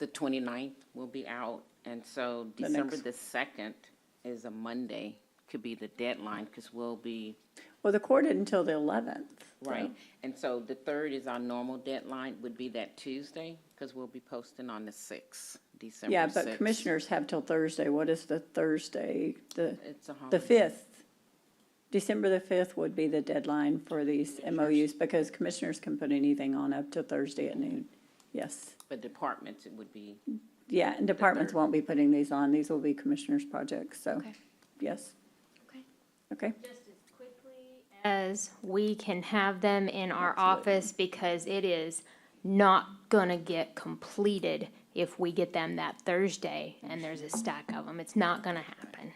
the 29th will be out, and so The December next- the 2nd is a Monday, could be the deadline, because we'll be, Well, the court didn't until the eleventh. right? And so the 3rd is our normal deadline, would be that Tuesday, because we'll be posting on the 6th, December 6th. Yeah, but commissioners have till Thursday. What is the Thursday? The, It's a the holiday. fifth. December the fifth would be the deadline for these MOUs because commissioners can put anything on up to Thursday at noon. Yes. But departments, it would be, Yeah, and departments third. won't be putting these on. These will be commissioners' projects, so, Okay. yes. Okay. Okay, Just as quickly As we can have them in our office because it is not gonna get completed if we get them that Thursday and there's a stack of them. It's not gonna happen.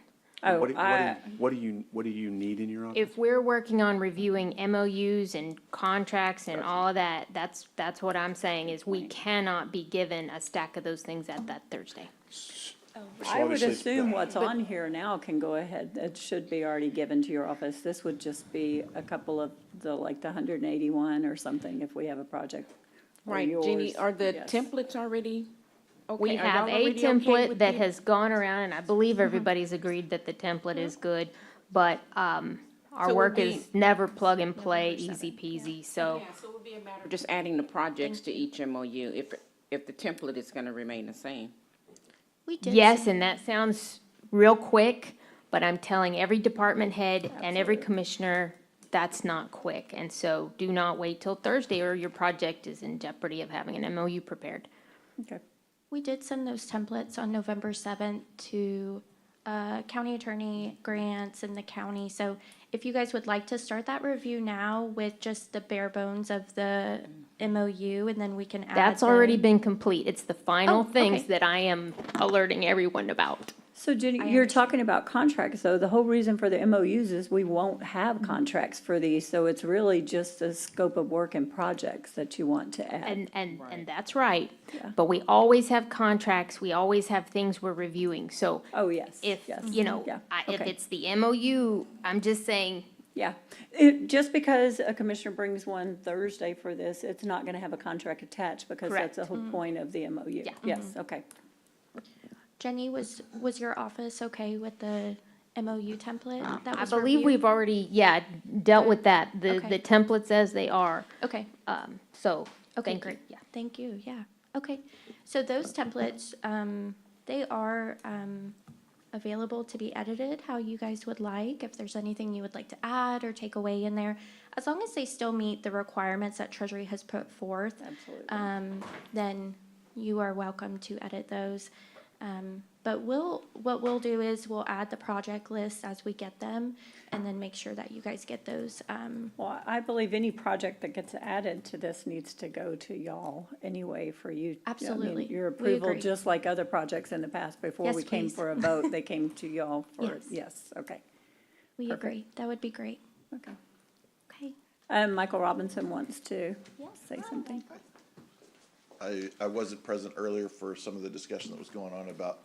Oh, What do- what I- do- What do you, what do you need in your office? If we're working on reviewing MOUs and contracts and all of that, that's, that's what I'm saying is we cannot be given a stack of those things at that Thursday. I would obviously- assume what's on here now can go ahead, it should be already given to your office. This would just be a couple of the, like, the hundred and eighty-one or something if we have a project. or right, Jeannie, yours. are the Yes. templates already? okay? We Are have y'all a already okay template with Mm-hmm. that the- has gone around, and I believe everybody's agreed that the template is good, but, um, Mm-hmm. So our we'll work be- is never plug and play, easy peasy, so, Yeah, so it would be a matter of just adding the projects to each MOU, if, if the template is gonna remain the same. We did. yes, and that sounds real quick, but I'm telling every department head and every commissioner, that's not quick, and so do not wait till Thursday, or your project is in jeopardy of having an MOU prepared. Okay. We did send those templates on November seventh to uh, county attorney grants and the county. So if you guys would like to start that review now with just the bare bones of the MOU, and then we can add. That's the- already been complete, it's the final Oh, okay. things that I am alerting everyone about. So Jenny, I you're talking about contracts, though. The whole reason for the MOUs is we won't have Mm-hmm. contracts for these, so it's really just the scope of work and projects that you want to add. And, and, and that's right. But we always have contracts, we always have things we're reviewing, so Oh, yes, if, yes. Mm-hmm. you know, Yeah, I- if okay. it's the MOU, I'm just saying, Yeah, it, just because a commissioner brings one Thursday for this, it's not gonna have a contract attached, because that's Correct. the whole point of the MOU. Yeah. Yes, okay. Jenny, was was your office okay with the MOU template? That Uh, I was believe we've reviewed? already, yeah, dealt with that, the, Okay. the templates as they are, Okay. um, so. Okay, thank you. great. Yeah. Thank you, yeah. Okay, so those templates, um, they are, um, available to be edited how you guys would like. If there's anything you would like to add or take away in there, as long as they still meet the requirements that Treasury has put forth, Absolutely. um, then you are welcome to edit those. Um, but we'll, what we'll do is we'll add the project lists as we get them and then make sure that you guys get those, um, Well, I believe any project that gets added to this needs to go to y'all anyway for you. I mean, Absolutely. Your We approval, agree. just like other projects in the past, before Yes, we came please. for a vote, they came to y'all for, Yes. yes, okay, we Perfect. agree. That would be great. okay. Okay. Um, Michael Robinson wants to Yes. say something. I, I wasn't present earlier for some of the discussion that was going on about,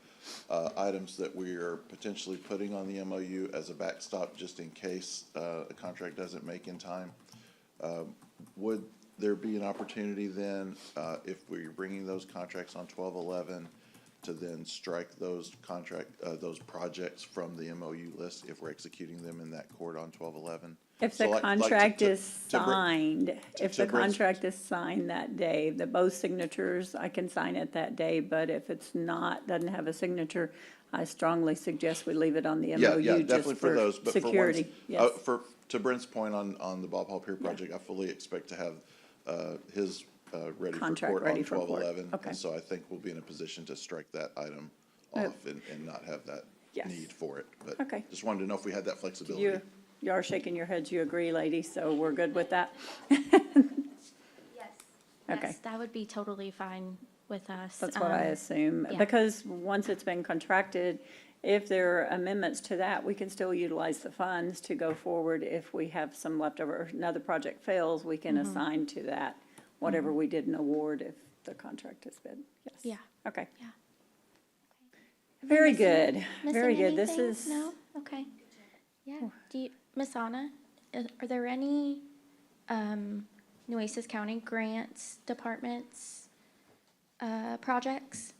uh, items that we are potentially putting on the MOU as a backstop just in case, uh, a contract doesn't make in time. Um, Would there be an opportunity then, uh, if we're bringing those contracts on twelve eleven, to then strike those contract, uh, those projects from the MOU list if we're executing them in that court on twelve eleven? If the contract is signed, if to the bring- contract is signed that day, the both signatures, I can sign it that day, but if it's not, doesn't have a signature, I strongly suggest we leave it on the Yeah, yeah, MOU definitely just for for those, but for ones, security, uh, yes. for, to Brent's point on, on the Bob Hall Pier project, I fully expect to have, uh, his, uh, ready for Contract court ready on for twelve court, eleven. okay. Uh, So I think we'll be in a position to strike that item off and, and not have that Yes. need for it, but Okay. just wanted to know if we had that flexibility. You, you are shaking your heads, you agree, lady, so we're good with that? Okay. Yes, that would be totally fine with us. That's what I Um, assume, yeah. because once it's been contracted, if there are amendments to that, we can still utilize the funds to go forward. If we have some leftover, if another project fails, we can Mm-hmm. assign to that whatever we didn't award if the contract has been, yes. Yeah. Okay. Yeah. Very good, very Missing good. This anything? is, No? Okay. Yeah. Do you, Ms. Anna, i- are there any, um, Nueces County grants, departments, uh, projects.